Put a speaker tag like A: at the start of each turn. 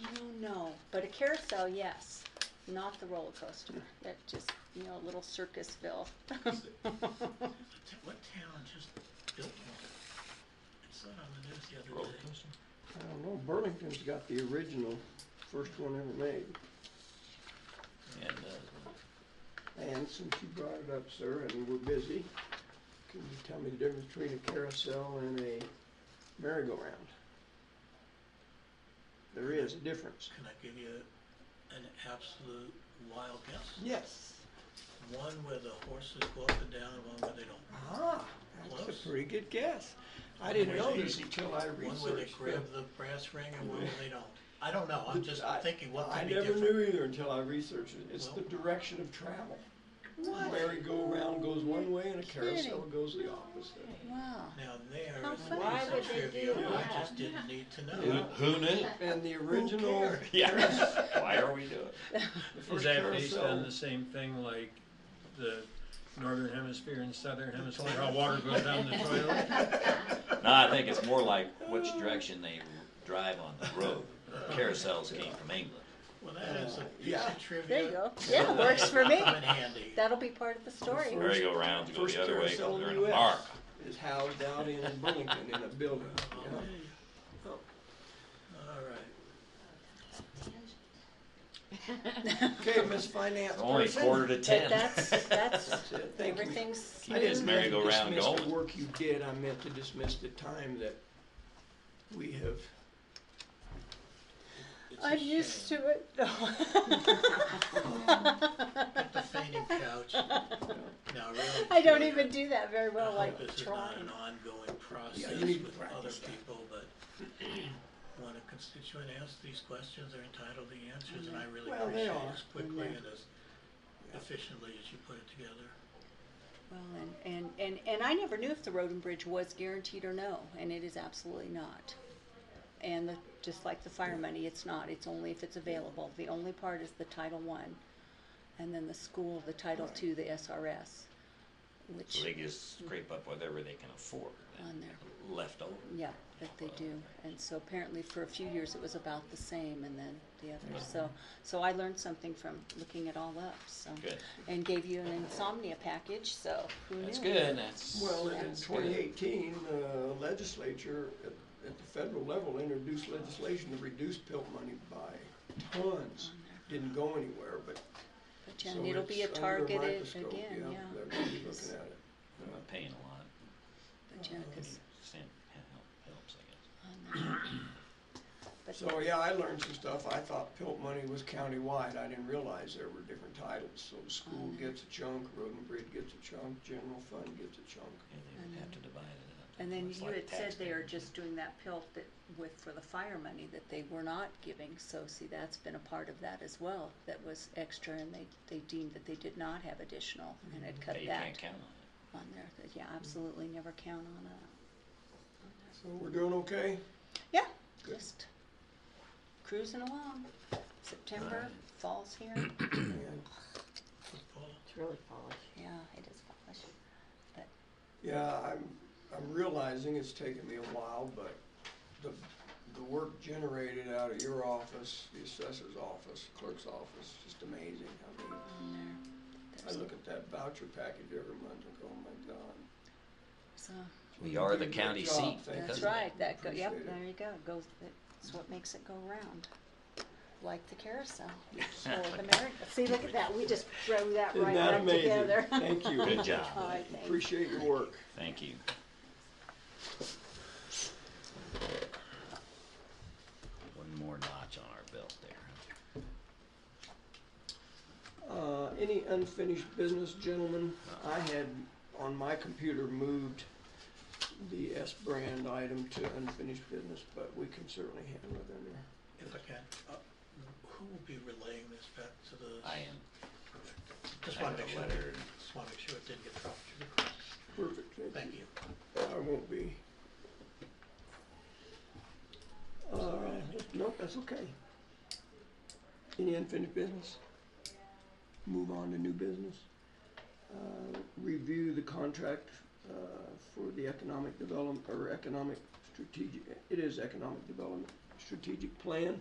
A: No, no, but a carousel, yes, not the roller coaster. That just, you know, a little Circusville.
B: What town just built one? It's on the news the other
C: Roller
B: day.
C: coaster?
D: I don't know, Burlington's got the original, first one ever made.
C: And, uh,
D: And since you brought it up, sir, and we're busy, can you tell me the difference between a carousel and a merry-go-round? There is a difference.
B: Can I give you an absolute wild guess?
D: Yes.
B: One where the horses go up and down, and one where they don't.
D: Ah,
B: Close.
D: that's a pretty good guess. I didn't
B: One
D: know
B: where they-
D: this until I
B: One where they
D: researched.
B: grab
D: the-
B: the brass ring and one where they don't. I don't know, I'm just
D: I-
B: thinking what
D: I
B: could be
D: never
B: different.
D: knew either until I researched it. It's the
B: Well-
D: direction of travel. Merry-go-round goes one way and a carousel
A: kidding.
D: goes the opposite.
A: Wow.
B: Now there
A: How
B: is a
A: funny. Why
B: piece
E: would
B: of
E: they do
B: trivia I
E: that?
B: just didn't need to know.
D: Yeah.
C: who, who knew?
D: And the original,
B: cares?
C: Yes, why are we doing?
D: the
F: Is
D: first
F: that based on
D: carousel,
F: the same thing like the northern hemisphere and southern hemisphere, how water goes down the toilet?
C: it? No, I think it's more like which direction they drive on the road. Carousels came from England.
B: Well, that is a piece
D: Yeah.
B: of trivia.
A: There you go. Yeah, works for me.
B: Come in handy.
A: That'll be part of the story.
D: First-
C: Merry-go-rounds go
D: first
C: the other way,
D: carousel
C: they
D: in the
C: they're
D: US
C: in America.
D: is housed out in Burlington in a building. you know.
B: All right.
D: Okay, Miss Finance
C: It's only
D: person.
C: quarter to ten.
A: That's, that's,
D: That's it. Thank you.
A: everything's.
C: Keep his
D: I didn't mean to
C: merry-go-round
D: dismiss
C: going.
D: The work you did, I meant to dismiss the time that we have.
B: It's a
A: I'm used
B: shame.
A: to it.
B: The fainting couch. Now, really.
A: I don't
B: Julia,
A: even do that very
B: I
D: Uh-huh.
A: well,
B: hope
A: like
B: This is not
A: trying.
B: an ongoing process
D: Yeah, you need to
B: with other
D: practice that.
B: people, but when a constituent asks these questions, they're entitled to the answers, and I really
D: Well, they
B: appreciate
D: are.
B: it as quickly
A: Yeah.
B: and as efficiently as you put it together.
A: Well, and, and, and, and I never knew if the road and bridge was guaranteed or no, and it is absolutely not. And the, just like the fire money, it's not, it's only if it's available, the only part is the Title One, and then the school, the Title Two, the SRS,
C: So
A: which,
C: they just scrape up whatever they can afford.
A: On there.
C: Left over.
A: yeah, that they do. And so apparently for a few years it was about the same, and then the others,
C: Mm-hmm.
A: so, so I learned something from looking it all up, so.
C: Good.
A: And gave you an insomnia package, so who knew?
C: That's good, that's.
D: Well, in
C: that's good.
D: 2018, the legislature at, at the federal level introduced legislation to reduce pilt money by tons. Didn't go anywhere, but
A: But
D: so
A: yeah, and Oh, it'll be a
D: it's under
A: targeted
D: microscope,
A: again, yeah.
D: They're gonna be looking at it.
C: I'm not paying a lot.
A: But yeah, 'cause
C: Send, helps, I guess.
D: So, yeah, I learned some stuff. I thought pilt money was countywide. I didn't realize there were different titles. So the school
A: Uh-huh.
D: gets a chunk, road and bridge gets a chunk, general fund gets a chunk.
C: Yeah, they would have to divide it up.
A: And then
C: It's
A: you
C: like
A: had said they
C: taxpayer.
A: are just doing that pilt that with, for the fire money that they were not giving, so see, that's been a part of that as well. That was extra and they, they deemed that they did not have additional and
D: Mm-hmm.
A: had cut
C: Yeah, you can't
A: that
C: count on it.
A: on there, That- yeah, absolutely never count on that.
D: So we're doing okay?
A: Yeah, just cruising along. September, fall's here,
D: And,
B: Football,
E: It's really falling.
A: yeah, it is fallish, but
D: Yeah, I'm, I'm realizing it's taken me a while, but the, the work generated out of your office, the assessor's office, clerk's office, just amazing. I mean,
A: on there.
D: I
A: There's
D: look at that voucher package every month and go, oh my God.
A: there's a-
C: We are
D: You
C: the
D: did a good
C: county
D: job.
C: seat.
D: Thank
C: because
A: That's
C: of that.
A: right, that go, yep,
D: Appreciate it.
A: there you go, goes, that's what makes it go round, like the carousel, or the merry, see, look at that, we just threw that
D: Isn't
A: right
D: that
A: back
D: amazing?
A: together.
D: Thank you.
C: Good job.
A: All right, thank you.
D: Appreciate your work.
C: Thank you. One more notch on our belt there.
D: Uh, any unfinished business, gentlemen? I had on my computer moved the S brand item to unfinished business, but we can certainly handle it in there.
B: If I can, uh, who will be relaying this back to the?
C: I am.
B: Just
C: I
B: wanna
C: got a
B: make sure,
C: letter.
B: just wanna make sure it didn't get dropped. through the cracks.
D: Perfect,
B: Thank you.
D: I won't be. Uh, nope, that's okay. Any unfinished business? Move on to new business. Uh, review the contract, uh, for the economic development, or economic strategic, it is economic development, strategic plan.